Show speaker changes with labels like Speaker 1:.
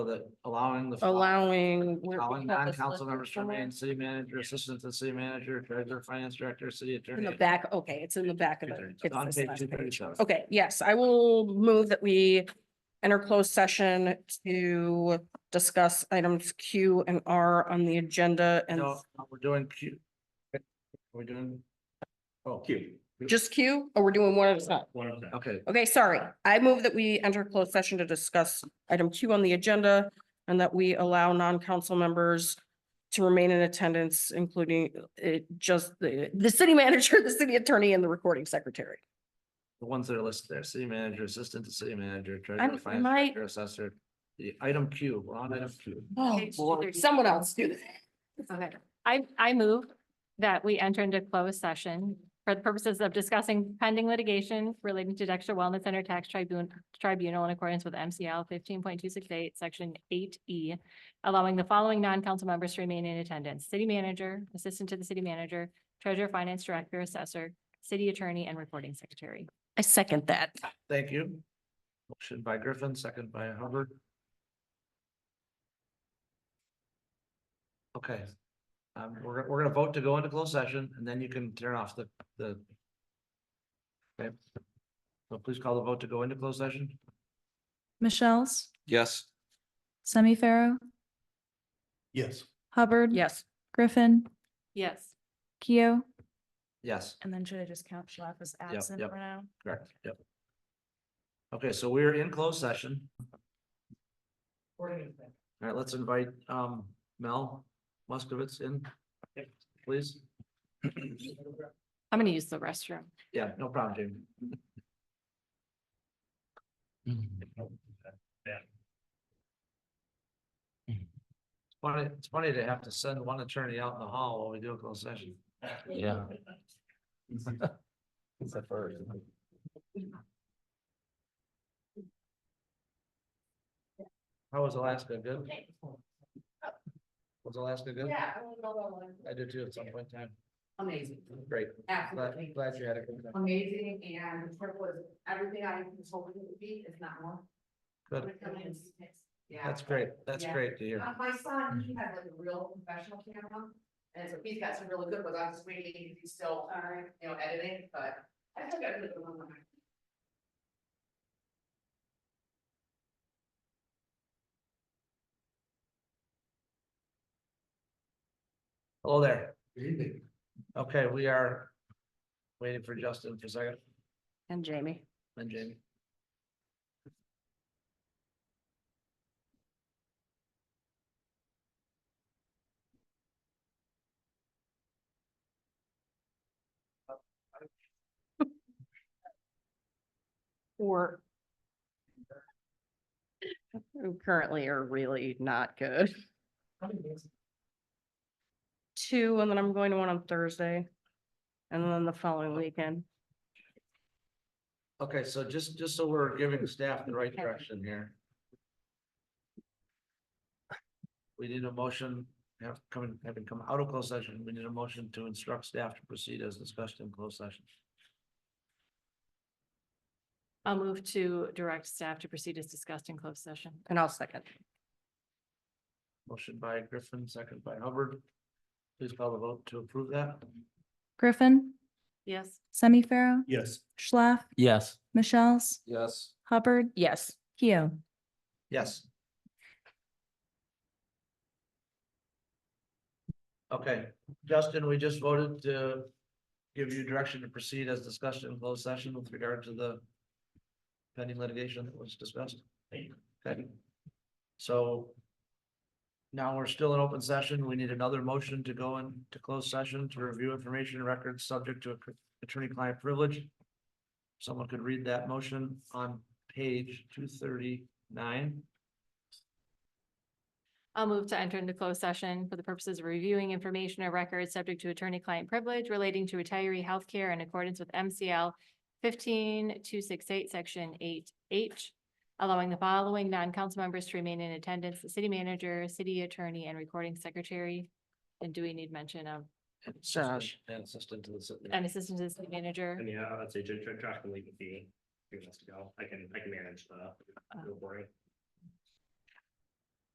Speaker 1: So that allowing the.
Speaker 2: allowing. where we
Speaker 1: Allowing
Speaker 2: call this
Speaker 1: non-council
Speaker 2: list
Speaker 1: members to
Speaker 2: before?
Speaker 1: remain city manager, assistant to the city manager, treasurer, finance director, city
Speaker 2: In
Speaker 1: attorney.
Speaker 2: the back, okay, it's in the back of it. It's
Speaker 1: On
Speaker 2: this
Speaker 1: page
Speaker 2: last
Speaker 1: two
Speaker 2: page.
Speaker 1: thirty-seven.
Speaker 2: Okay, yes, I will move that we enter closed session to discuss items Q and R on the agenda and
Speaker 1: No, we're doing Q. We're doing. Oh, Q.
Speaker 2: just Q, or we're doing one at a time?
Speaker 3: One of them.
Speaker 1: Okay,
Speaker 2: Okay, sorry. I move that we enter closed session to discuss item Q on the agenda and that we allow non-council members to remain in attendance, including it just the, the city manager, the city attorney and the recording secretary.
Speaker 1: the ones that are listed there, city manager, assistant to city manager,
Speaker 2: I'm-
Speaker 1: treasurer, finance
Speaker 2: my-
Speaker 1: director, assessor. The item Q, we're on item Q.
Speaker 2: Oh,
Speaker 4: Page
Speaker 2: Lord,
Speaker 4: 230.
Speaker 2: someone else do that.
Speaker 4: Okay, I, I move that we enter into closed session for the purposes of discussing pending litigation relating to Dexter Wellness Center Tax Tribunal, Tribunal in accordance with MCL fifteen point two six eight, section eight E, allowing the following non-council members to remain in attendance, city manager, assistant to the city manager, treasurer, finance director, assessor, city attorney, and recording secretary.
Speaker 2: I second that.
Speaker 1: Thank you. Motion by Griffin, second by Hubbard. Okay. Um, we're, we're gonna vote to go into closed session and then you can turn off the, the. Okay. So please call the vote to go into closed session.
Speaker 5: Michelle's,
Speaker 6: Yes.
Speaker 5: Semi Pharaoh,
Speaker 3: Yes.
Speaker 5: Hubbard.
Speaker 2: Yes.
Speaker 5: Griffin,
Speaker 4: Yes.
Speaker 5: Keo.
Speaker 1: Yes,
Speaker 5: And then should I just count Schlaf as absent
Speaker 1: yep.
Speaker 5: for now?
Speaker 1: correct, yep. Okay, so we're in closed session. All right, let's invite, um, Mel Muskovitz in, please.
Speaker 4: I'm gonna use the restroom.
Speaker 1: Yeah, no problem, Jamie. Funny, it's funny to have to send one attorney out in the hall while we do a closed session.
Speaker 6: Yeah.
Speaker 1: How was Alaska? Good? Was Alaska good?
Speaker 2: Yeah, I don't know about one.
Speaker 1: I did too at some point in time.
Speaker 2: Amazing,
Speaker 1: Great. Glad,
Speaker 2: absolutely
Speaker 1: glad you had a good time.
Speaker 2: amazing, and the trip was everything I was hoping it would be, if not more.
Speaker 1: Good.
Speaker 2: Yeah,
Speaker 1: That's great. Mm-hmm. That's
Speaker 2: Yeah.
Speaker 1: great to hear.
Speaker 2: Uh, my son, he had like a real professional camera, and so he's got some really good ones, I'm just waiting, if he's still, uh, you know, editing, but I still got a good one. on my-
Speaker 1: Hello there. Good evening. Okay, we are waiting for Justin for a second
Speaker 2: And Jamie.
Speaker 1: and Jamie.
Speaker 2: Or. Currently are really not good. Two, and then I'm going to one on Thursday. And then the following weekend.
Speaker 1: Okay, so just, just so we're giving staff the right direction here. We need a motion, have coming, having come out of closed session, we need a motion to instruct staff to proceed as discussed in closed session.
Speaker 4: I'll move to direct staff to proceed as discussed in closed session.
Speaker 2: And I'll second.
Speaker 1: Motion by Griffin, second by Hubbard. Please call the vote to approve that.
Speaker 5: Griffin,
Speaker 4: Yes.
Speaker 5: Semi Pharaoh,
Speaker 3: Yes.
Speaker 5: Schlaf,
Speaker 6: Yes.
Speaker 5: Michelle's,
Speaker 6: Yes.
Speaker 5: Hubbard,
Speaker 2: Yes.
Speaker 5: Keo.
Speaker 1: Yes. Okay, Justin, we just voted to give you direction to proceed as discussed in closed session with regard to the pending litigation that was discussed. Okay. So now we're still in open session. We need another motion to go into closed session to review information and records subject to attorney-client privilege. Someone could read that motion on page two thirty-nine.
Speaker 4: I'll move to enter into closed session for the purposes of reviewing information or records subject to attorney-client privilege relating to retiree health care in accordance with MCL fifteen two six eight, section eight H, allowing the following non-council members to remain in attendance, the city manager, city attorney, and recording secretary. And do we need mention of
Speaker 1: And assistant-
Speaker 2: Josh.
Speaker 1: and assistant to the city.
Speaker 4: an assistant to the city manager?
Speaker 3: And yeah, I'd say Josh, Josh can leave with me. If he wants to go. I can, I can manage the, the boring.